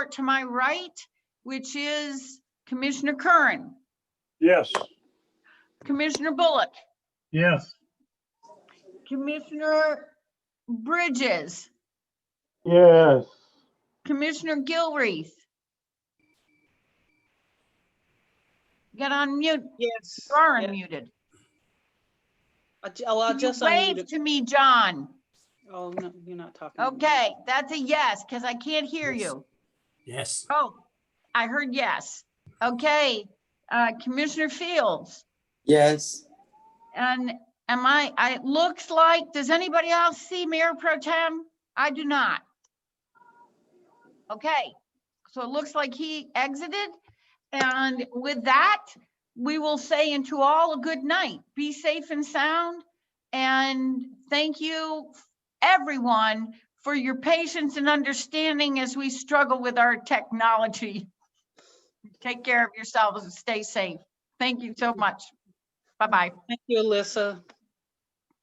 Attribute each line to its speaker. Speaker 1: to my right, which is Commissioner Curran,
Speaker 2: Yes.
Speaker 1: Commissioner Bullock,
Speaker 2: Yes.
Speaker 1: Commissioner Bridges,
Speaker 2: Yes.
Speaker 1: Commissioner Gilreath. Get on mute,
Speaker 3: Yes.
Speaker 1: you are
Speaker 3: yeah.
Speaker 1: unmuted.
Speaker 3: I'll ju- I'll
Speaker 1: Can you
Speaker 3: just unmute
Speaker 1: Wave
Speaker 3: it.
Speaker 1: to me, John.
Speaker 3: Oh, no, you're not talking. to me.
Speaker 1: Okay, that's a yes, because I can't hear you.
Speaker 4: Yes.
Speaker 1: Oh, I heard yes. Okay, uh, Commissioner Fields,
Speaker 5: Yes,
Speaker 1: and am I, I, it looks like, does anybody else see Mayor Pro Tem? I do not. Okay, so it looks like he exited. And with that, we will say into all a good night. Be safe and sound. And thank you, everyone, for your patience and understanding as we struggle with our technology. Take care of yourselves and stay safe. Thank you so much. Bye-bye.
Speaker 3: Thank you, Alyssa.